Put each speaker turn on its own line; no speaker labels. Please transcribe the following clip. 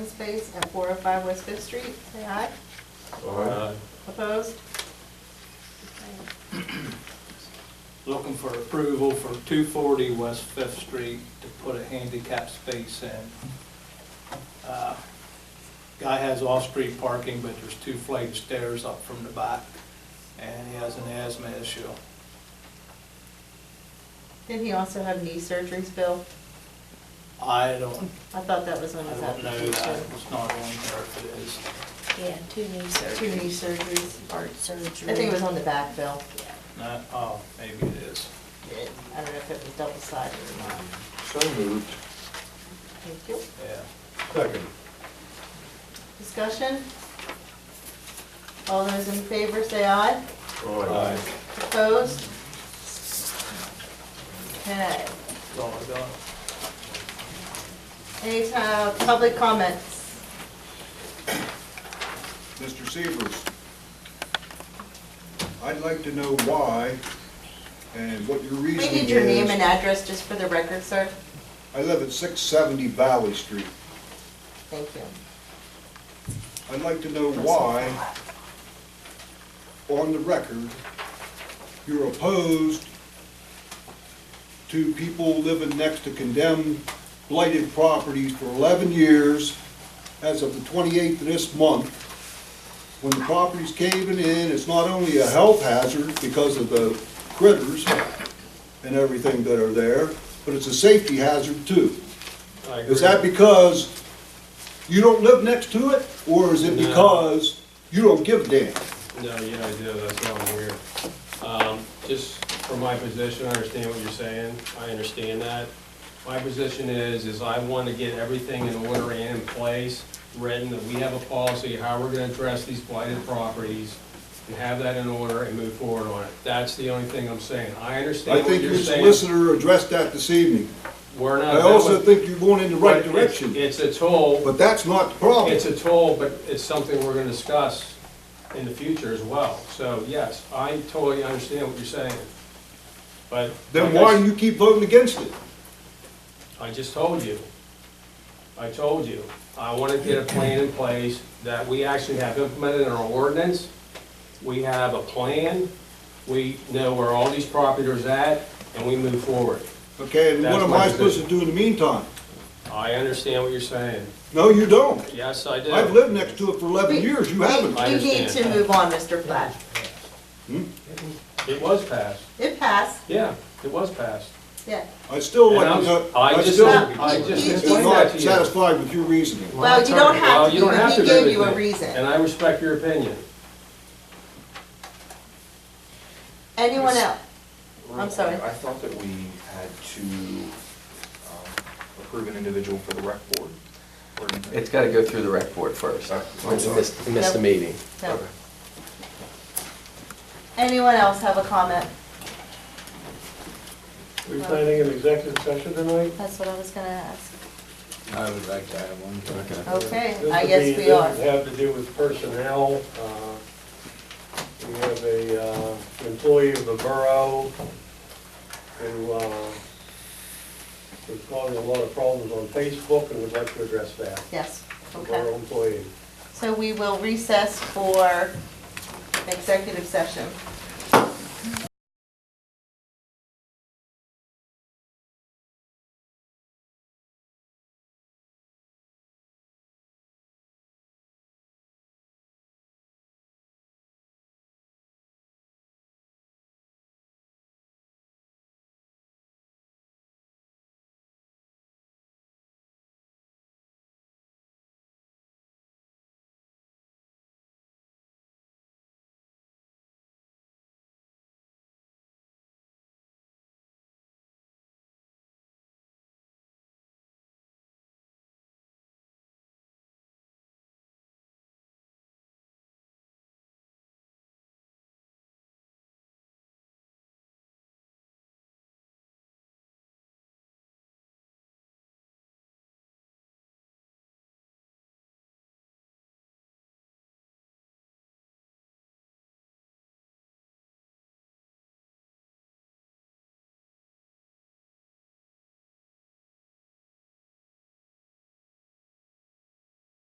space at 405 West Fifth Street. Say aye.
Uh,
Aye.
Opposed?
looking for approval for 240 West Fifth Street to put a handicap space in. Uh, Guy has off-street parking, but there's two flight of stairs up from the back, and he has an asthma issue.
Didn't he also have knee surgeries, Bill?
I don't,
I thought that was
I
on his
don't know that,
application.
it's not on there if it is.
Yeah, two knee
Two knee
surgeries,
surgeries.
heart surgery.
I think it was on the back, Bill.
No, oh, maybe it is.
I don't know if it was double sided or
Uh,
not.
So moved.
Thank you.
Yeah.
Second.
Discussion? All those in favor say aye.
Aye.
Opposed? Okay.
That's all I got.
Any uh, public comments?
Mr. Severs, I'd like to know why and what your
We
reasoning
need your name and
is.
address just for the record, sir.
I live at 670 Valley Street.
Thank you.
I'd like to know why, on the record, you're opposed to people living next to condemned blighted properties for 11 years as of the 28th of this month. When the property's caving in, it's not only a health hazard because of the critters and everything that are there, but it's a safety hazard too. Is that because you don't live next to it, or is it
No.
because you don't give a damn?
No, yeah, I do, that's why I'm here. Um, Just from my position, I understand what you're saying, I understand that. My position is, is I want to get everything in order and in place, written, that we have a policy, how we're going to address these blighted properties, and have that in order and move forward on it. That's the only thing I'm saying. I
I
understand what
think
you're
your
saying.
solicitor addressed that this evening.
We're not.
I also
that
think you're going in the
was-
right
but it's-
direction,
It's a toll.
but that's not the problem.
It's a toll, but it's something we're gonna discuss in the future as well. So yes, I totally understand what you're saying, but.
Then why do you keep voting against it?
I just told you. I told you. I wanna get a plan in place that we actually have implemented in our ordinance. We have a plan. We know where all these properties are at, and we move forward.
Okay, and what
That's
am
my
I supposed to do in the meantime?
I understand what you're saying.
No, you don't.
Yes, I do.
I've lived next to it for 11
We-
years, you
we-
haven't.
I
We need to
understand.
move on, Mr. Platt.
It was passed.
It passed,
Yeah, it was passed.
yeah.
I'd still
And
like
I'm-
to know,
I
I
just-
still
I
just
am
explained
that
not
to you.
satisfied with your reasoning.
Well, you don't have
Well,
to
you don't
be,
have
he
to agree
gave
with
you a
me,
reason.
And I respect your opinion.
Anyone else? I'm sorry.
I thought that we had to um, approve an individual for the rec board. Or-
It's got to go through the rec board first.
Oh, I'm
Once it
sorry.
missed- it missed the
Yep.
meeting.
No.
Okay.
Anyone else have a comment?
Are we planning an executive session tonight?
That's what I was gonna ask.
I would like to have one.
Okay.
Okay,
This
I
would
guess
be-
we are.
This would have to do with personnel. Uh, We have a uh, employee of the borough who uh, is causing a lot of problems on Facebook and would like to address that.
Yes,
The Borough
okay.
employee.
So we will recess for executive session.